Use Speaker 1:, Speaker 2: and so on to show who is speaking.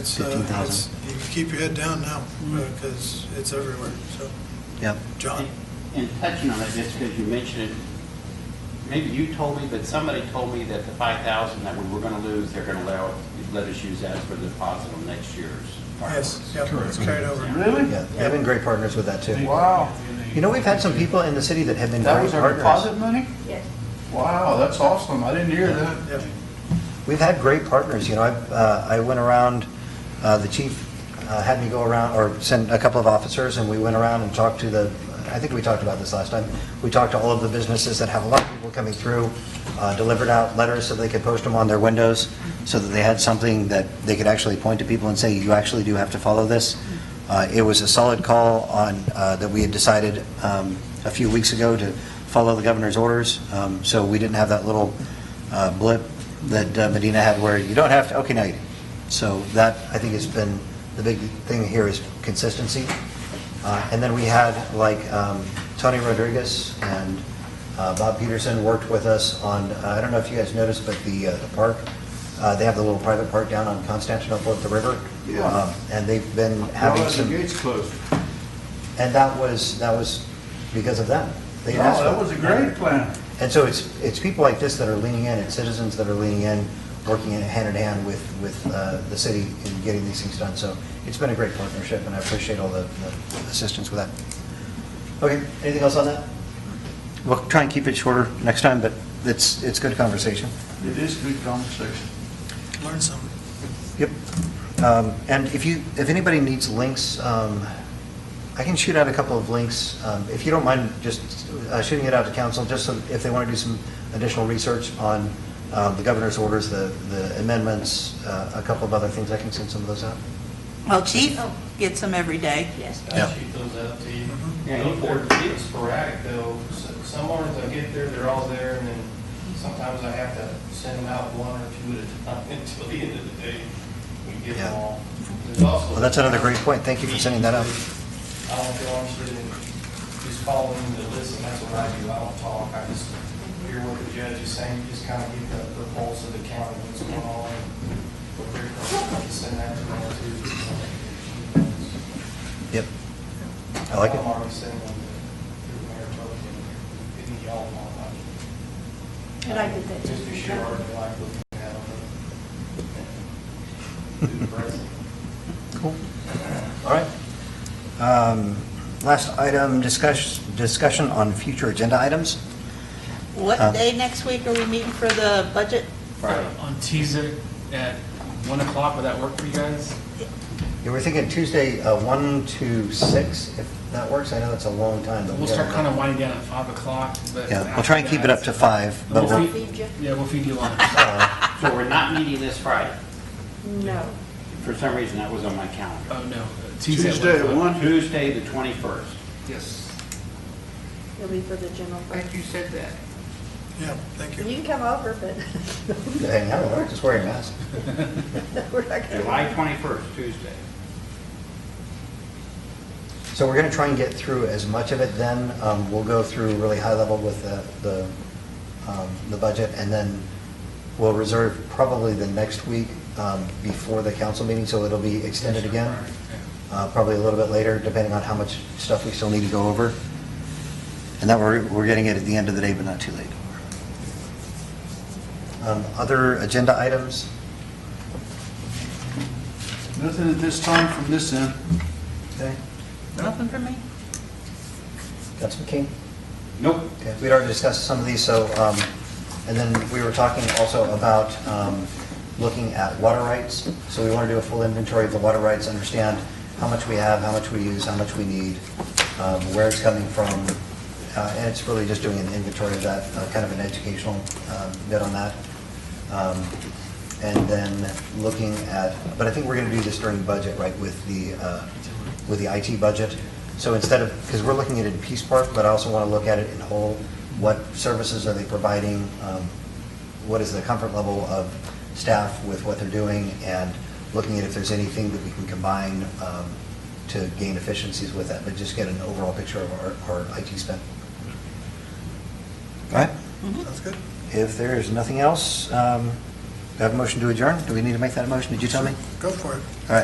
Speaker 1: It's, uh,
Speaker 2: 15,000.
Speaker 1: it's- You keep your head down now, because it's everywhere, so.
Speaker 2: Yep.
Speaker 1: John?
Speaker 3: And touching on it, just because you mentioned it, maybe you told me, but somebody told me that the five thousand that we were gonna lose, they're gonna allow, let us use that for the deposit on next year's
Speaker 1: Yes,
Speaker 3: fireworks.
Speaker 1: yep, it's carried over.
Speaker 4: Really?
Speaker 2: Yeah, they've been great partners with that too.
Speaker 4: Wow.
Speaker 2: You know, we've had some people in the city that have been
Speaker 4: That
Speaker 2: great
Speaker 4: was our
Speaker 2: partners.
Speaker 4: deposit money?
Speaker 5: Yes.
Speaker 4: Wow, that's awesome. I didn't hear that.
Speaker 1: Yep.
Speaker 2: We've had great partners, you know, I, uh, I went around, uh, the chief uh, had me go around, or send a couple of officers, and we went around and talked to the, I think we talked about this last time, we talked to all of the businesses that have a lot of people coming through, uh, delivered out letters so they could post them on their windows, so that they had something that they could actually point to people and say, you actually do have to follow this. Uh, It was a solid call on, uh, that we had decided um, a few weeks ago to follow the governor's orders, Um, so we didn't have that little uh, blip that uh, Medina had where you don't have to, okay, now you do. So that, I think, has been, the big thing here is consistency. Uh, And then we had, like, um, Tony Rodriguez and uh, Bob Peterson worked with us on, uh, I don't know if you guys noticed, but the uh, the park, uh, they have the little private park down on Constantinople at the river.
Speaker 4: Yeah.
Speaker 2: Um, And they've been
Speaker 4: Now
Speaker 2: having
Speaker 4: that the
Speaker 2: some,
Speaker 4: gate's closed.
Speaker 2: and that was, that was because of them. They
Speaker 4: No,
Speaker 2: asked
Speaker 4: that
Speaker 2: for it.
Speaker 4: was a great plan.
Speaker 2: And so it's, it's people like this that are leaning in, it's citizens that are leaning in, working in hand in hand with, with uh, the city in getting these things done. So it's been a great partnership, and I appreciate all the the assistance with that. Okay, anything else on that? We'll try and keep it shorter next time, but it's, it's good conversation.
Speaker 4: It is good conversation.
Speaker 1: Learn something.
Speaker 2: Yep. Um, And if you, if anybody needs links, um, I can shoot out a couple of links. Um, If you don't mind just uh, shooting it out to council, just so if they want to do some additional research on uh, the governor's orders, the the amendments, uh, a couple of other things, I can send some of those out.
Speaker 6: Well, Chief gets them every day.
Speaker 5: Yes.
Speaker 2: Yeah.
Speaker 7: I'll shoot those Uh, out to you.
Speaker 3: Yeah, you
Speaker 7: They're-
Speaker 3: forward
Speaker 7: They're sporadic though. S- Some mornings I get there, they're all there, and then sometimes I have to send them out one or two at a time until the end of the day. We get them
Speaker 2: Yeah.
Speaker 7: all. There's also-
Speaker 2: Well, that's another great point. Thank you for sending that out.
Speaker 7: I don't feel I'm sitting, just following the list, and that's what I do. I don't talk. I just hear what the judge is saying, just kind of get the, the pulse of the county, what's going on. What they're, I can send that to them too.
Speaker 2: Yep. I like it.
Speaker 7: I'm already sending them to Mayor Token, in the y'all want, like.
Speaker 5: And I did that
Speaker 7: Just be
Speaker 5: too.
Speaker 7: sure, I like looking at them. Do the present.
Speaker 2: Cool. All right. Um, Last item, discuss- discussion on future agenda items.
Speaker 6: What
Speaker 2: Uh.
Speaker 6: day next week are we meeting for the budget?
Speaker 3: Friday.
Speaker 8: on Tuesday at 1 o'clock, would that work for you guys?
Speaker 2: Yeah, we're thinking Tuesday, uh, 1 to 6, if that works. I know that's a long time, but we
Speaker 8: We'll start kind
Speaker 2: gotta-
Speaker 8: of winding down at 5 o'clock, but.
Speaker 2: Yeah, we'll try and keep it up to
Speaker 8: after
Speaker 2: 5,
Speaker 8: that-
Speaker 2: but
Speaker 5: I'll
Speaker 2: we'll,
Speaker 8: We'll
Speaker 5: feed you.
Speaker 8: feed- Yeah, we'll feed you lunch.
Speaker 2: uh,
Speaker 3: So we're not meeting this Friday.
Speaker 5: No.
Speaker 3: For some reason, that was on my calendar.
Speaker 8: Oh, no.
Speaker 4: Tuesday at
Speaker 8: o'clock.
Speaker 4: one.
Speaker 3: Tuesday, the twenty-first.
Speaker 8: Yes.
Speaker 5: It'll be for the general. fund.
Speaker 8: you said that.
Speaker 1: Yeah, thank
Speaker 5: You
Speaker 1: you.
Speaker 5: can come over,
Speaker 2: hang out, we're just wearing masks.
Speaker 5: but we're not going
Speaker 3: July
Speaker 5: to.
Speaker 3: twenty-first, Tuesday.
Speaker 2: So we're going to try and get through as much of it then. Um, We'll go through really high level with the, the um, the budget, and then we'll reserve probably the next week um, before the council meeting, so it'll be extended again, Uh, probably a little bit later, depending on how much stuff we still need to go over. And that we're, we're getting it at the end of the day, but not too late. Um, Other agenda items?
Speaker 4: Nothing at this time from this end.
Speaker 2: Okay.
Speaker 6: Nothing for me?
Speaker 2: Councilman King?
Speaker 3: Nope.
Speaker 2: Okay, We'd already discussed some of these, so, um, and then we were talking also about um, looking at water rights. So we want to do a full inventory of the water rights, understand how much we have, how much we use, how much we need, um, where it's coming from. Uh, And it's really just doing an inventory of that, uh, kind of an educational um, bit on that. Um, And then looking at, but I think we're going to do this during budget, right, with the, uh, with the IT budget. So instead of, because we're looking at it in piece part, but I also want to look at it in whole. What services are they providing? Um, What is the comfort level of staff with what they're doing? And looking at if there's anything that we can combine um, to gain efficiencies with that, but just get an overall picture of our, our IT spend. All right?
Speaker 1: Sounds good.
Speaker 2: If there is nothing else, um, I have a motion to adjourn? Do we need to make that a motion? Did you tell me?
Speaker 1: Go for it.